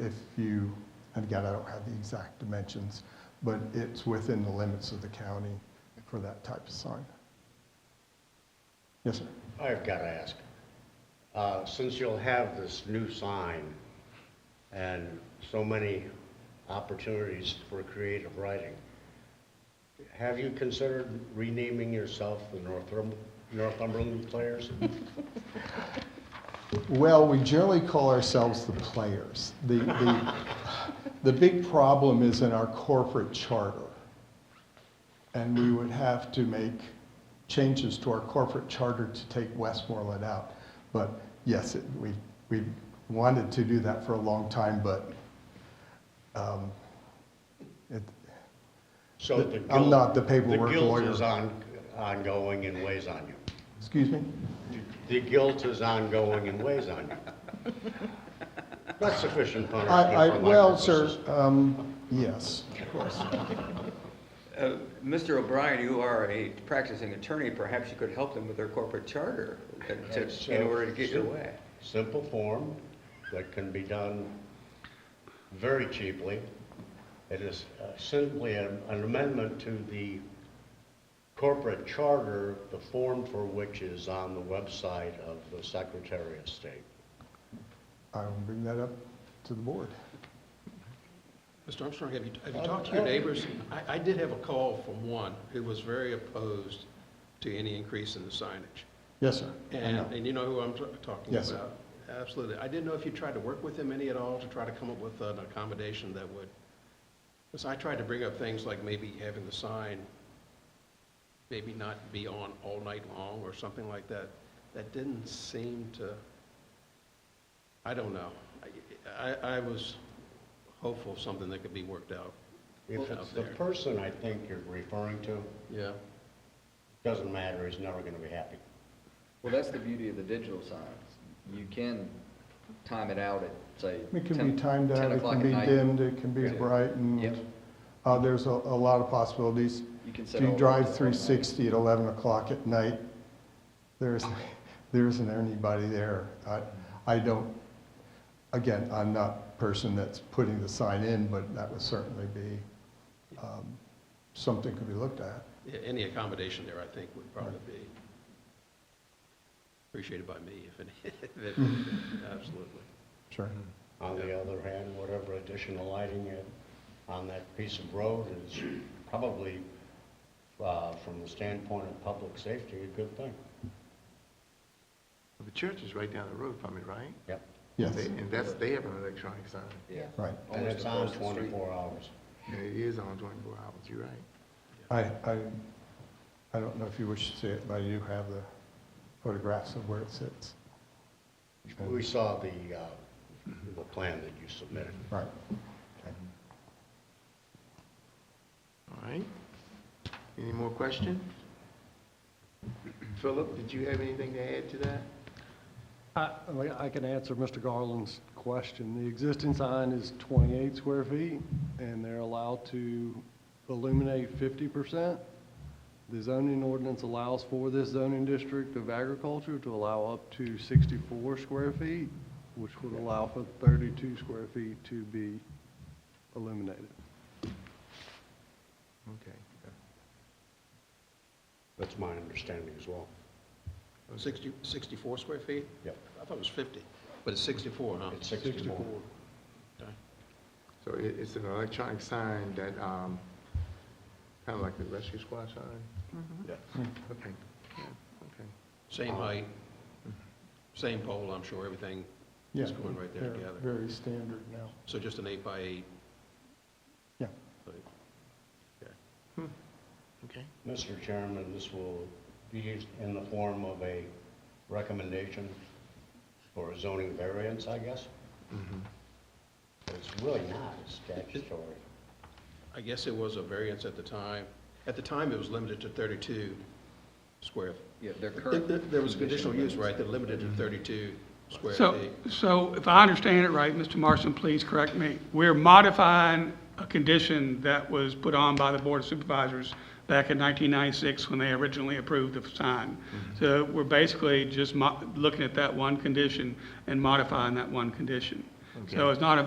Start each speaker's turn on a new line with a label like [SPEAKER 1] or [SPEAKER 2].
[SPEAKER 1] If you, and again, I don't have the exact dimensions, but it's within the limits of the county for that type of sign. Yes, sir.
[SPEAKER 2] I've got to ask, uh, since you'll have this new sign and so many opportunities for creative writing, have you considered renaming yourself the Northrum- Northumberland Players?
[SPEAKER 1] Well, we generally call ourselves the players. The, the, the big problem is in our corporate charter. And we would have to make changes to our corporate charter to take Westmoreland out. But yes, it, we, we wanted to do that for a long time, but, um, it,
[SPEAKER 2] So the
[SPEAKER 1] I'm
[SPEAKER 2] guilt-
[SPEAKER 1] not the paperwork
[SPEAKER 2] The
[SPEAKER 1] lawyer.
[SPEAKER 2] guilt is on, ongoing and weighs on you.
[SPEAKER 1] excuse me?
[SPEAKER 2] The guilt is ongoing and weighs on you. Not sufficient
[SPEAKER 1] I,
[SPEAKER 2] punishment
[SPEAKER 1] I,
[SPEAKER 2] for my
[SPEAKER 1] well, sir,
[SPEAKER 2] purposes.
[SPEAKER 1] um, yes, of course.
[SPEAKER 3] Uh, Mr. O'Brien, you are a practicing attorney, perhaps you could help them with their corporate charter uh, to- in order to get your way.
[SPEAKER 2] Simple form that can be done very cheaply. It is uh, simply an an amendment to the corporate charter, the form for which is on the website of the Secretary of State.
[SPEAKER 1] I will bring that up to the board.
[SPEAKER 4] Mr. Armstrong, have you, have you talked to your neighbors? I, I did have a call from one who was very opposed to any increase in the signage.
[SPEAKER 1] Yes, sir. I know.
[SPEAKER 4] And, and you know who I'm t- talking
[SPEAKER 1] Yes, sir.
[SPEAKER 4] about? Absolutely. I didn't know if you tried to work with him any at all to try to come up with an accommodation that would, because I tried to bring up things like maybe having the sign maybe not be on all night long or something like that. That didn't seem to, I don't know. I- I, I was hopeful of something that could be worked out.
[SPEAKER 2] If
[SPEAKER 4] Well,
[SPEAKER 2] it's
[SPEAKER 4] up
[SPEAKER 2] the
[SPEAKER 4] there.
[SPEAKER 2] person I think you're referring to,
[SPEAKER 4] Yeah.
[SPEAKER 2] doesn't matter, he's never going to be happy.
[SPEAKER 5] Well, that's the beauty of the digital signs. You can time it out at, say,
[SPEAKER 1] It
[SPEAKER 5] 10
[SPEAKER 1] can be timed
[SPEAKER 5] 10
[SPEAKER 1] out, it
[SPEAKER 5] o'clock
[SPEAKER 1] can
[SPEAKER 5] at
[SPEAKER 1] be
[SPEAKER 5] night.
[SPEAKER 1] dimmed, it can be
[SPEAKER 5] Yeah.
[SPEAKER 1] bright,
[SPEAKER 5] Yep.
[SPEAKER 1] and, uh, there's a, a lot of possibilities.
[SPEAKER 5] You can set
[SPEAKER 1] If you
[SPEAKER 5] all- all
[SPEAKER 1] drive
[SPEAKER 5] night.
[SPEAKER 1] three sixty at eleven o'clock at night, there isn't, there isn't anybody there. I, I don't, again, I'm not person that's putting the sign in, but that would certainly be, um, something could be looked at.
[SPEAKER 4] Yeah, Any accommodation there, I think, would probably be appreciated by me, if any, if it- absolutely.
[SPEAKER 1] Sure.
[SPEAKER 5] Mm-hmm.
[SPEAKER 2] On the other hand, whatever additional lighting you- on that piece of road is probably, uh, from the standpoint of public safety, a good thing.
[SPEAKER 6] Well, The church is right down the road from it, right?
[SPEAKER 2] Yep.
[SPEAKER 1] Yes,
[SPEAKER 6] They- And that's, they have an electronic sign.
[SPEAKER 5] Yeah.
[SPEAKER 1] right.
[SPEAKER 2] And
[SPEAKER 5] Almost
[SPEAKER 2] it's on
[SPEAKER 5] across the street.
[SPEAKER 2] 24 hours.
[SPEAKER 6] Yeah, It is on 24 hours, you're right.
[SPEAKER 1] I, I, I don't know if you wish to see it, but I do have the photographs of where it sits.
[SPEAKER 2] We saw the, uh, the plan that you submitted.
[SPEAKER 1] Right.
[SPEAKER 6] All right. Any more questions? Philip, did you have anything to add to that?
[SPEAKER 7] I I can answer Mr. Garland's question. The existing sign is 28 square feet, and they're allowed to illuminate 50%. The zoning ordinance allows for this zoning district of agriculture to allow up to 64 square feet, which would allow for 32 square feet to be illuminated.
[SPEAKER 6] Okay.
[SPEAKER 2] That's my understanding as well.
[SPEAKER 4] 60 64 square feet?
[SPEAKER 2] Yep.
[SPEAKER 4] I thought it was 50, but it's 64, huh?
[SPEAKER 2] It's 64.
[SPEAKER 4] Okay.
[SPEAKER 6] So it, it's an electronic sign that, um, kind of like the rescue squad sign? Okay, yeah, okay.
[SPEAKER 4] Same height, same pole, I'm sure, everything
[SPEAKER 1] Yeah,
[SPEAKER 4] is going right there
[SPEAKER 1] they're
[SPEAKER 4] together.
[SPEAKER 1] Very standard now.
[SPEAKER 4] So just an eight by eight,
[SPEAKER 1] Yeah.
[SPEAKER 4] like, okay.
[SPEAKER 6] Okay.
[SPEAKER 2] Mr. Chairman, this will be in the form of a recommendation for a zoning variance, I guess.
[SPEAKER 5] Mm-hmm.
[SPEAKER 2] But It's really not a statutory.
[SPEAKER 4] I guess it was a variance at the time. At the time, it was limited to 32 square.
[SPEAKER 5] Yeah, their
[SPEAKER 4] There-
[SPEAKER 5] current.
[SPEAKER 4] There there was
[SPEAKER 5] condition
[SPEAKER 4] conditional use,
[SPEAKER 5] limits.
[SPEAKER 4] right, that limited to 32 square
[SPEAKER 8] So,
[SPEAKER 4] feet.
[SPEAKER 8] so if I understand it right, Mr. Marston, please correct me. We're modifying a condition that was put on by the Board of Supervisors back in 1996 when they originally approved the sign.
[SPEAKER 4] Mm-hmm.
[SPEAKER 8] So we're basically just mo- looking at that one condition and modifying that one condition. So it's not a